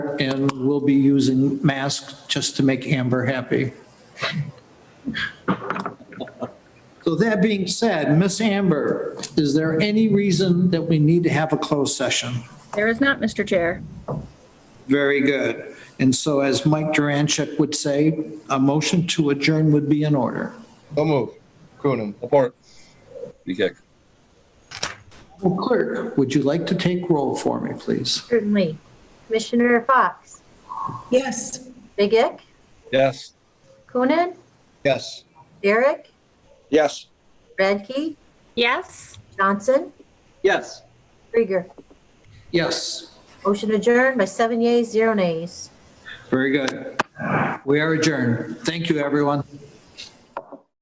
there and we'll be using masks just to make Amber happy. So that being said, Miss Amber, is there any reason that we need to have a closed session? There is not, Mr. Chair. Very good. And so as Mike Durancheck would say, a motion to adjourn would be in order. So move. Coonan. Support. Dukak. Well, Clerk, would you like to take roll for me, please? Certainly. Commissioner Fox, Yes. Big Ick, Yes. Coonan, Yes. Derek, Yes. Radke, Yes? Johnson, Yes. Krieger. Yes. Motion adjourned by seven yeas, zero nays. Very good. We are adjourned. Thank you, everyone.